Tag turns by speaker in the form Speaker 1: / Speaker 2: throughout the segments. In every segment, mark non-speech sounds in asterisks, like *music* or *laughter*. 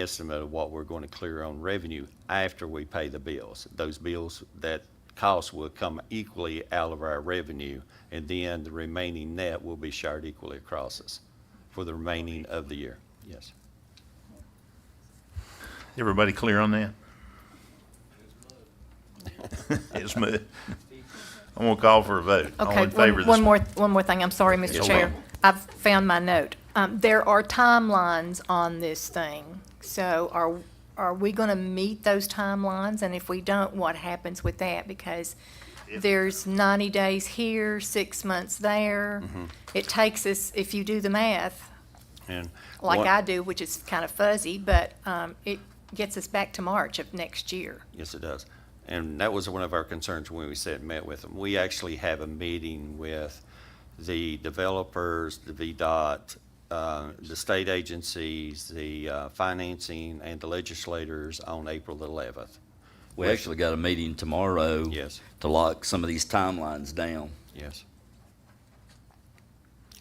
Speaker 1: estimate of what we're going to clear on revenue after we pay the bills. Those bills, that cost will come equally out of our revenue, and then the remaining net will be shared equally across us for the remaining of the year. Yes.
Speaker 2: Everybody clear on that? It's mud. I'm gonna call for a vote. All
Speaker 3: Okay,
Speaker 2: in favor of this
Speaker 3: one, one
Speaker 2: mo-
Speaker 3: more, one more thing, I'm sorry, Mr.
Speaker 2: Yes,
Speaker 3: Chair.
Speaker 2: ma'am.
Speaker 3: I've found my note. Um, there are timelines on this thing, so are, are we gonna meet those timelines? And if we don't, what happens with that? Because there's ninety days here, six months there.
Speaker 2: Mm-hmm.
Speaker 3: It takes us, if you do the math,
Speaker 1: And
Speaker 3: like
Speaker 1: one-
Speaker 3: I do, which is kind of fuzzy, but, um, it gets us back to March of next year.
Speaker 1: Yes, it does. And that was one of our concerns when we sat and met with them. We actually have a meeting with the developers, the VDOT, uh, the state agencies, the uh, financing, and the legislators on April the 11th.
Speaker 4: We actually got a meeting tomorrow.
Speaker 1: Yes.
Speaker 4: To lock some of these timelines down.
Speaker 1: Yes.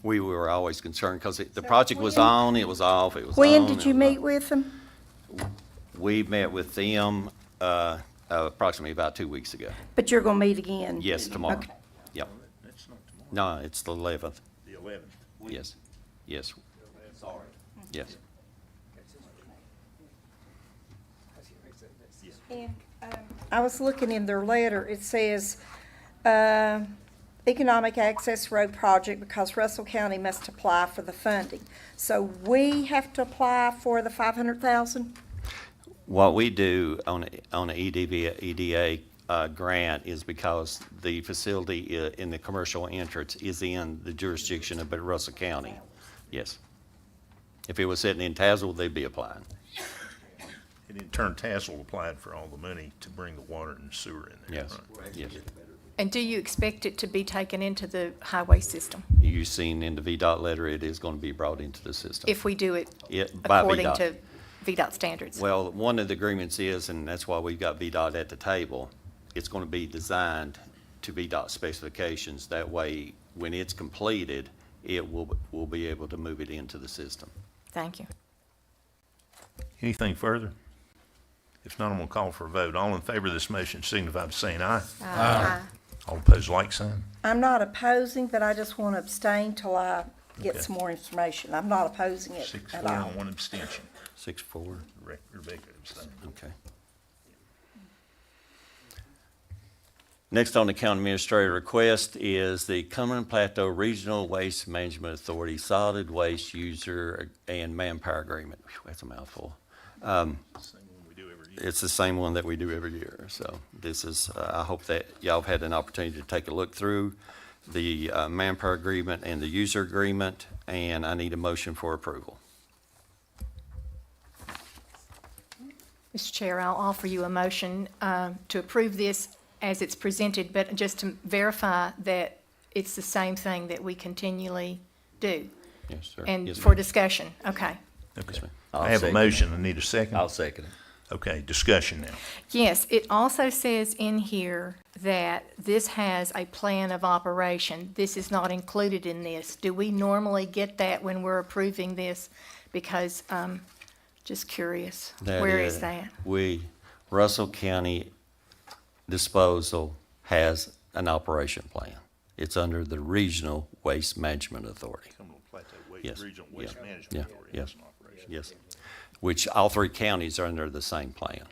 Speaker 1: We were always concerned because the project was on, it was off, it was on.
Speaker 2: Oh,
Speaker 5: When
Speaker 1: it
Speaker 5: did you
Speaker 1: was off.
Speaker 5: meet with them?
Speaker 1: We met with them uh, approximately about two weeks ago.
Speaker 5: But you're gonna meet again?
Speaker 1: Yes, tomorrow.
Speaker 5: Okay.
Speaker 1: Yep. No, it's the 11th.
Speaker 2: The 11th.
Speaker 1: Yes, yes. Sorry. Yes.
Speaker 5: I was looking in their letter, it says, uh, economic access road project because Russell County must apply for the funding. So we have to apply for the five hundred thousand?
Speaker 1: What we do on, on a E EDV, EDA uh, grant is because the facility i- in the commercial entrance is in the jurisdiction of Russell County. Yes. If it was sitting in Tazewell, they'd be applying.
Speaker 2: And in turn, Tassel applied for all the money to bring the water and sewer in there.
Speaker 1: Yes,
Speaker 2: right?
Speaker 1: yes.
Speaker 3: And do you expect it to be taken into the highway system
Speaker 1: You've seen in the VDOT letter, it is going to be brought into the system.
Speaker 3: if we do it
Speaker 1: It- by
Speaker 3: according
Speaker 1: VDOT.
Speaker 3: to VDOT standards.
Speaker 1: Well, one of the agreements is, and that's why we've got VDOT at the table, it's gonna be designed to VDOT specifications. That way, when it's completed, it will, we'll be able to move it into the system.
Speaker 3: Thank you.
Speaker 2: Anything further? If not, I'm gonna call for a vote. All in favor of this motion signify by saying aye. Aye. All opposed, like sign.
Speaker 5: I'm not opposing, but I just wanna abstain till I
Speaker 2: Okay.
Speaker 5: get some more information. I'm not opposing it
Speaker 2: Six,
Speaker 5: at
Speaker 2: four,
Speaker 5: all.
Speaker 2: and one abstention.
Speaker 1: Six, four.
Speaker 2: Re- Rebecca abstained.
Speaker 1: Okay. Next on the county administrator request is the Cumberland Plateau Regional Waste Management Authority Solid Waste User and Manpower Agreement. Whew, That's a mouthful.
Speaker 2: Same one we do every year.
Speaker 1: it's the same one that we do every year. So this is, uh, I hope that y'all have had an opportunity to take a look through the uh, manpower agreement and the user agreement, and I need a motion for approval.
Speaker 3: Mr. Chair, I'll offer you a motion uh, to approve this as it's presented, but just to verify that it's the same thing that we continually do.
Speaker 1: Yes, sir.
Speaker 3: And
Speaker 1: Yes,
Speaker 3: for
Speaker 1: ma'am.
Speaker 3: discussion, okay.
Speaker 2: Okay.
Speaker 1: ma'am.
Speaker 2: I have a
Speaker 4: second
Speaker 2: motion. I need a
Speaker 4: it.
Speaker 2: second.
Speaker 4: I'll second it.
Speaker 2: Okay, discussion now.
Speaker 3: Yes, it also says in here that this has a plan of operation. This is not included in this. Do we normally get that when we're approving this? Because, um, just curious, where is that?
Speaker 1: We, Russell County Disposal has an operation plan. It's under the Regional Waste Management Authority.
Speaker 2: Cumberland Plateau
Speaker 1: Yes.
Speaker 2: Waste, Regional Waste
Speaker 1: Yeah.
Speaker 2: Management
Speaker 1: Yeah.
Speaker 2: Authority
Speaker 1: Yeah.
Speaker 2: has an operation.
Speaker 1: Yes, which all three counties are under the same plan.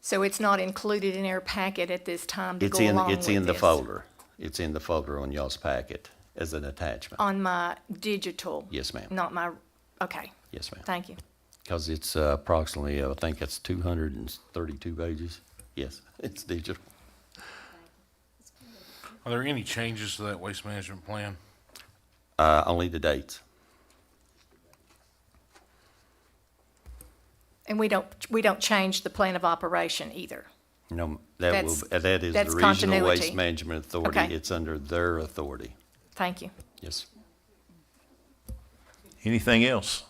Speaker 3: So it's not included in our packet at this time to go
Speaker 1: It's in,
Speaker 3: along
Speaker 1: it's
Speaker 3: with
Speaker 1: in the
Speaker 3: this.
Speaker 1: folder. It's in the folder on y'all's packet as an attachment.
Speaker 3: On my digital?
Speaker 1: Yes, ma'am.
Speaker 3: Not my, okay,
Speaker 1: Yes, ma'am.
Speaker 3: thank you.
Speaker 1: Because it's uh, approximately, I think it's 232 pages. Yes, *laughs* it's digital.
Speaker 6: Are there any changes to that waste management plan?
Speaker 1: Uh, Only the dates.
Speaker 3: And we don't, we don't change the plan of operation either.
Speaker 1: No, that will,
Speaker 3: That's-
Speaker 1: that is
Speaker 3: that's
Speaker 1: the Regional Waste
Speaker 3: continuity.
Speaker 1: Management Authority.
Speaker 3: Okay.
Speaker 1: It's under their authority.
Speaker 3: Thank you.
Speaker 1: Yes.
Speaker 2: Anything else?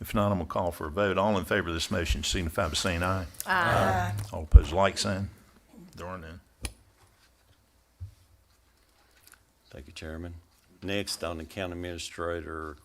Speaker 2: If not, I'm gonna call for a vote. All in favor of this motion signify by saying aye. Aye. All opposed, like sign. There are none.
Speaker 1: Thank you, Chairman. Next on the county administrator